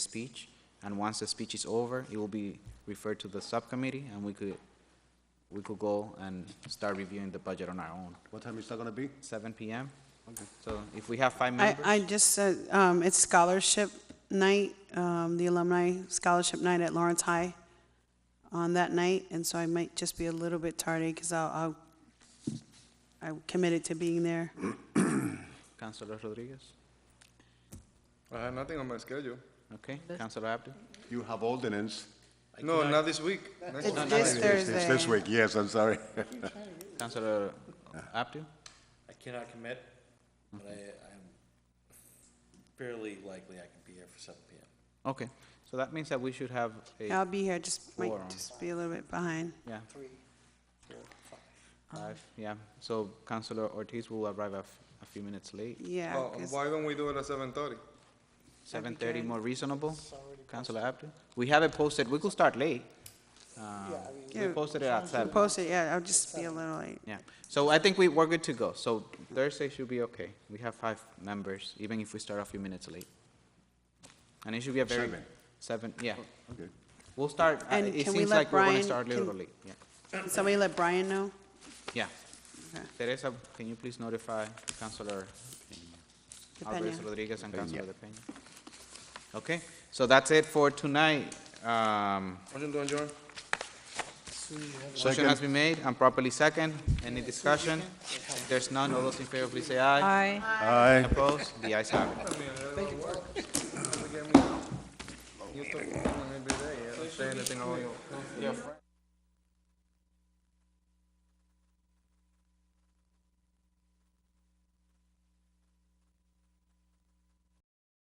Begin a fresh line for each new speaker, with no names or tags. speech, and once the speech is over, it will be referred to the subcommittee, and we could, we could go and start reviewing the budget on our own.
What time is that gonna be?
Seven PM? So if we have five
I,
members,
I just said, um, it's scholarship night, um, the alumni scholarship night at Lawrence High on that night, and so I might just be a little bit tardy, because I'll, I'll, I'm committed to being there.
Councilor Rodriguez,
I have nothing on my schedule.
okay, Councilor Abdo?
You have ordinance.
No, not this week. Next
It's
week.
this
It's- it's This
Thursday.
week, yes, I'm sorry.
Councilor Abdo?
I cannot commit, but I, I'm fairly likely I can be here for seven PM.
Okay, so that means that we should have a,
I'll be here, just, might
Forum.
just be a little bit behind.
yeah. Three, four, five. Five, yeah, so Councilor Ortiz will arrive a, f- a few minutes late.
Yeah,
Well,
'cause-
why don't we do it at seven thirty?
Seven thirty more reasonable, Councilor Abdo? We have it posted, we could start late. Um, We
Yeah.
posted it at seven.
post it, yeah, I'll just be a little late.
Yeah, so I think we, we're good to go. So Thursday should be okay. We have five members, even if we start a few minutes late. And it should be a very.
Seven. Oh,
Seven, yeah.
Okay.
We'll start, uh,
And
it
can we
seems
let
like we're gonna
Brian-
start a little
can-
late, yeah.
Can Somebody let Brian know?
Yeah.
Okay.
Teresa, can you please notify Councilor Alvarez
Depending.
Rodriguez and
Peña.
Councilor De Peña? Okay, so that's it for tonight. Um,
Motion to adjourn?
Motion has
Second,
been made and properly second. Any discussion? If there's none, all those in favor, please say aye.
aye.
Opposed? The ayes have it.
You talk to me every day, I don't say anything about you.